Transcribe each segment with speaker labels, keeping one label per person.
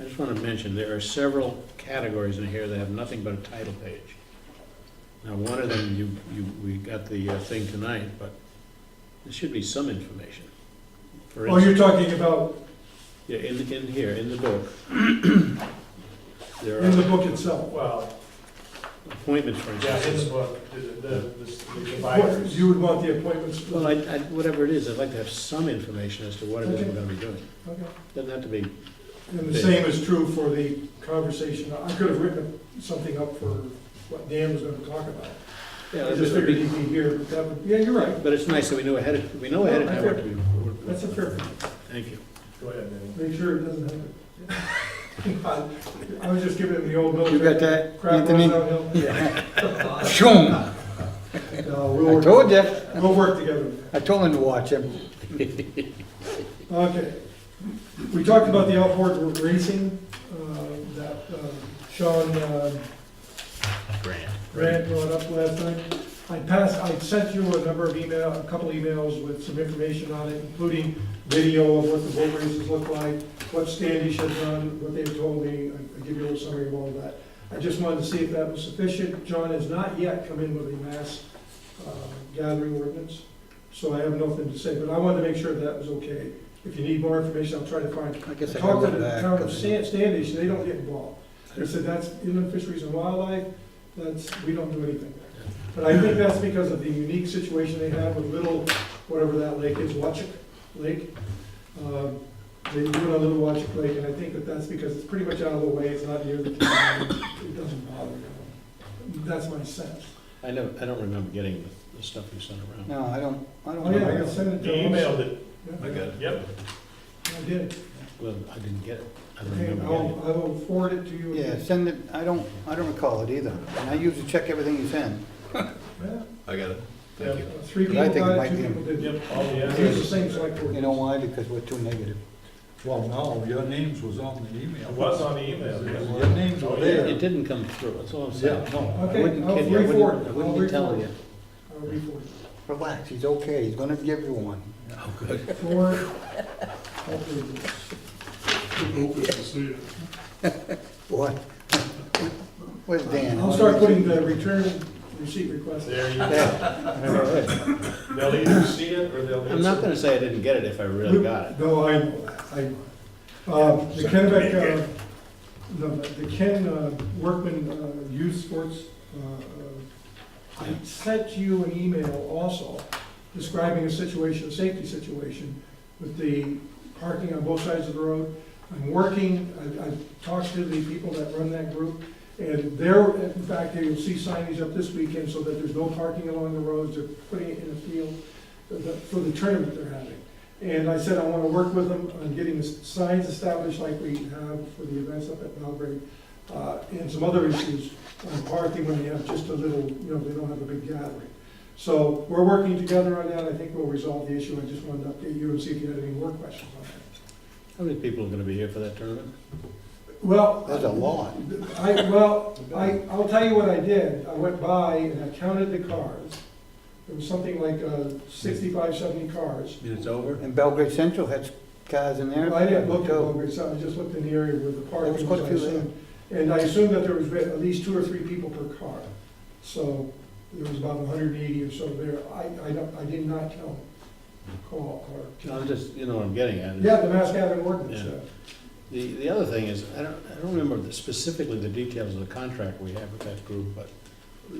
Speaker 1: I just want to mention, there are several categories in here that have nothing but a title page. Now, one of them, you, you, we got the uh, thing tonight, but there should be some information. For
Speaker 2: Oh, you're
Speaker 1: instance,
Speaker 2: talking about
Speaker 1: yeah, in, in here, in the book. There
Speaker 2: in the
Speaker 1: are
Speaker 2: book itself.
Speaker 3: Well,
Speaker 1: appointments, for
Speaker 3: yeah, in the
Speaker 1: instance.
Speaker 3: book, the, the, the the
Speaker 2: What,
Speaker 3: dividers.
Speaker 2: you would want the appointments?
Speaker 1: Well, I, I, whatever it is, I'd like to have some information as to what it is we're
Speaker 2: Okay.
Speaker 1: gonna be doing.
Speaker 2: Okay.
Speaker 1: Doesn't have to be,
Speaker 2: And the same is true for the conversation, I could have written something up for what Dan was gonna talk about.
Speaker 1: yeah,
Speaker 2: I just
Speaker 1: it'd
Speaker 2: figured
Speaker 1: be-
Speaker 2: he'd be here, but that would, yeah, you're right,
Speaker 1: but it's nice that we know ahead of, we know ahead of time what to do.
Speaker 2: that's a fair,
Speaker 1: Thank you.
Speaker 3: Go ahead, Danny.
Speaker 2: make sure it doesn't happen. I was just giving him the old military.
Speaker 4: You got that,
Speaker 2: Crap
Speaker 4: Anthony?
Speaker 2: rolls downhill.
Speaker 4: Shoom!
Speaker 2: No, we'll
Speaker 4: I
Speaker 2: work-
Speaker 4: told you,
Speaker 2: We'll work together.
Speaker 4: I told him to watch him.
Speaker 2: Okay. We talked about the outboard racing, uh, that um, Sean uh,
Speaker 1: Grant.
Speaker 2: Grant brought up last night. I passed, I sent you a number of email, a couple emails with some information on it, including video of what the boat races look like, what Standish had done, what they've told me, I I give you a little summary of all of that. I just wanted to see if that was sufficient. John has not yet come in with a mass uh, gathering ordinance, so I have nothing to say, but I wanted to make sure that was okay. If you need more information, I'll try to find
Speaker 4: I guess I can
Speaker 2: Talk to
Speaker 4: go
Speaker 2: the
Speaker 4: back.
Speaker 2: town of Stan- Standish, they don't get involved. They said that's inland fisheries and wildlife, that's, we don't do anything there. But I think that's because of the unique situation they have with Little, whatever that lake is, Watchuk Lake. Um, They do it on Little Watchuk Lake, and I think that that's because it's pretty much out of the way, it's not near the town, it doesn't bother them. That's my sense.
Speaker 1: I know, I don't remember getting the- the stuff you sent around.
Speaker 4: No, I don't, I don't.
Speaker 2: Oh, yeah, I got
Speaker 4: know.
Speaker 2: send it
Speaker 3: You
Speaker 2: to him.
Speaker 3: emailed it,
Speaker 2: Yeah,
Speaker 1: got
Speaker 3: yep.
Speaker 2: I did.
Speaker 1: Well, I didn't get it. I don't
Speaker 2: Okay,
Speaker 1: remember getting
Speaker 2: I'll, I will forward it to you.
Speaker 4: Yeah, send it, I don't, I don't recall it either, and I usually check everything you send.
Speaker 2: Yeah,
Speaker 5: I got it.
Speaker 3: Yep.
Speaker 5: Thank you.
Speaker 2: Three
Speaker 4: But I
Speaker 2: people
Speaker 4: think it
Speaker 2: got
Speaker 4: might
Speaker 2: it, two
Speaker 4: be-
Speaker 2: people didn't.
Speaker 3: Yep, all the
Speaker 2: It's the
Speaker 3: answers.
Speaker 2: same select board.
Speaker 4: You know why? Because we're too negative.
Speaker 6: Well, no, your names was on the
Speaker 3: It
Speaker 6: email.
Speaker 3: was on the email.
Speaker 6: Your names
Speaker 3: Oh,
Speaker 6: were
Speaker 3: yeah.
Speaker 1: it. It
Speaker 6: there.
Speaker 1: didn't come through, that's all I'm
Speaker 6: Yeah,
Speaker 1: saying.
Speaker 6: no.
Speaker 1: I
Speaker 2: Okay,
Speaker 1: wouldn't
Speaker 2: I'll
Speaker 1: kid you, I
Speaker 2: re-forward.
Speaker 1: wouldn't, I
Speaker 2: I'll
Speaker 1: wouldn't be telling you.
Speaker 2: re-forward. I'll re-forward.
Speaker 4: Relax, he's okay, he's gonna give you one.
Speaker 2: Forward. I'll do this.
Speaker 4: What? Where's Dan?
Speaker 2: I'll start putting the return receipt request.
Speaker 3: There you go.
Speaker 4: Yeah.
Speaker 3: They'll either see it or they'll.
Speaker 1: I'm not gonna say I didn't get it if I really got it.
Speaker 2: No, I, I, uh, the Kennebec, uh, no, the Ken uh, Workman uh, Youth Sports, uh, uh, I sent you an email also describing a situation, a safety situation with the parking on both sides of the road. I'm working, I, I talked to the people that run that group, and they're, in fact, they will see signage up this weekend so that there's no parking along the roads, they're putting it in a field for the- for the tournament they're having. And I said I want to work with them on getting the signs established like we have for the events up at Belgrade, uh, and some other issues on parking when they have just a little, you know, they don't have a big gathering. So we're working together on that, I think we'll resolve the issue, I just wanted to update you and see if you had any more questions on that.
Speaker 1: How many people are gonna be here for that tournament?
Speaker 2: Well.
Speaker 4: There's a lot.
Speaker 2: I, well, I, I'll tell you what I did, I went by and I counted the cars, there was something like uh, 65, 70 cars.
Speaker 1: And it's over?
Speaker 4: And Belgrade Central has cars in there.
Speaker 2: Well, Oh, I didn't look at
Speaker 4: too.
Speaker 2: Belgrade, so I just looked in the area where the
Speaker 4: There
Speaker 2: parking
Speaker 4: was
Speaker 2: was.
Speaker 4: quite a
Speaker 2: I
Speaker 4: few there.
Speaker 2: assumed. And I assumed that there was at least two or three people per car. So there was about hundred and eighty or so there. I, I don't, I did not count call
Speaker 1: No,
Speaker 2: or.
Speaker 1: I'm just, you know what I'm getting at. is
Speaker 2: Yeah, the mass gathering ordinance,
Speaker 1: Yeah.
Speaker 2: yeah.
Speaker 1: The, the other thing is, I don't, I don't remember the- specifically the details of the contract we have with that group, but,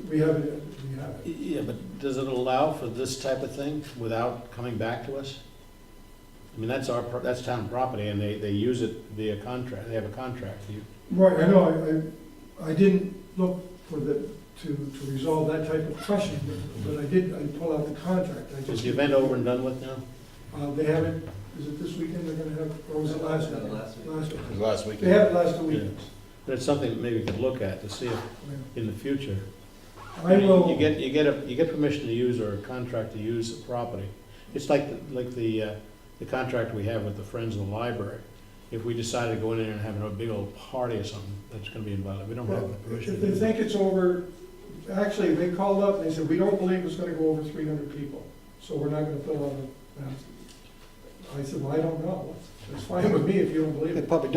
Speaker 2: we have it, we have it.
Speaker 1: yeah, but does it allow for this type of thing without coming back to us? I mean, that's our, pro- that's town property and they, they use it via contract, they have a contract. You-
Speaker 2: Right, I know, I, I, I didn't look for the, to, to resolve that type of question, but- but I did, I pulled out the contract. I
Speaker 1: Is
Speaker 2: just
Speaker 1: the event over and done with now?
Speaker 2: Uh, they have it, is it this weekend they're gonna have, or was it last week? Last
Speaker 5: It
Speaker 2: week.
Speaker 5: was last
Speaker 2: They
Speaker 5: weekend.
Speaker 2: had it last
Speaker 1: Yeah.
Speaker 2: week.
Speaker 1: But it's something that maybe we could look at to see if, in the future.
Speaker 2: I
Speaker 1: You
Speaker 2: will,
Speaker 1: get, you get, a you get permission to use or a contract to use the property. It's like, the- like the, uh, the contract we have with the Friends of the Library. If we decided to go in there and have a big old party or something, that's gonna be in violation, we don't have the permission.
Speaker 2: if
Speaker 1: to
Speaker 2: they
Speaker 1: do that.
Speaker 2: think it's over, actually, they called up and they said, we don't believe it's gonna go over three hundred people, so we're not gonna fill out the. I said, well, I don't know, it's fine with me if you don't believe
Speaker 4: They
Speaker 2: it.
Speaker 4: probably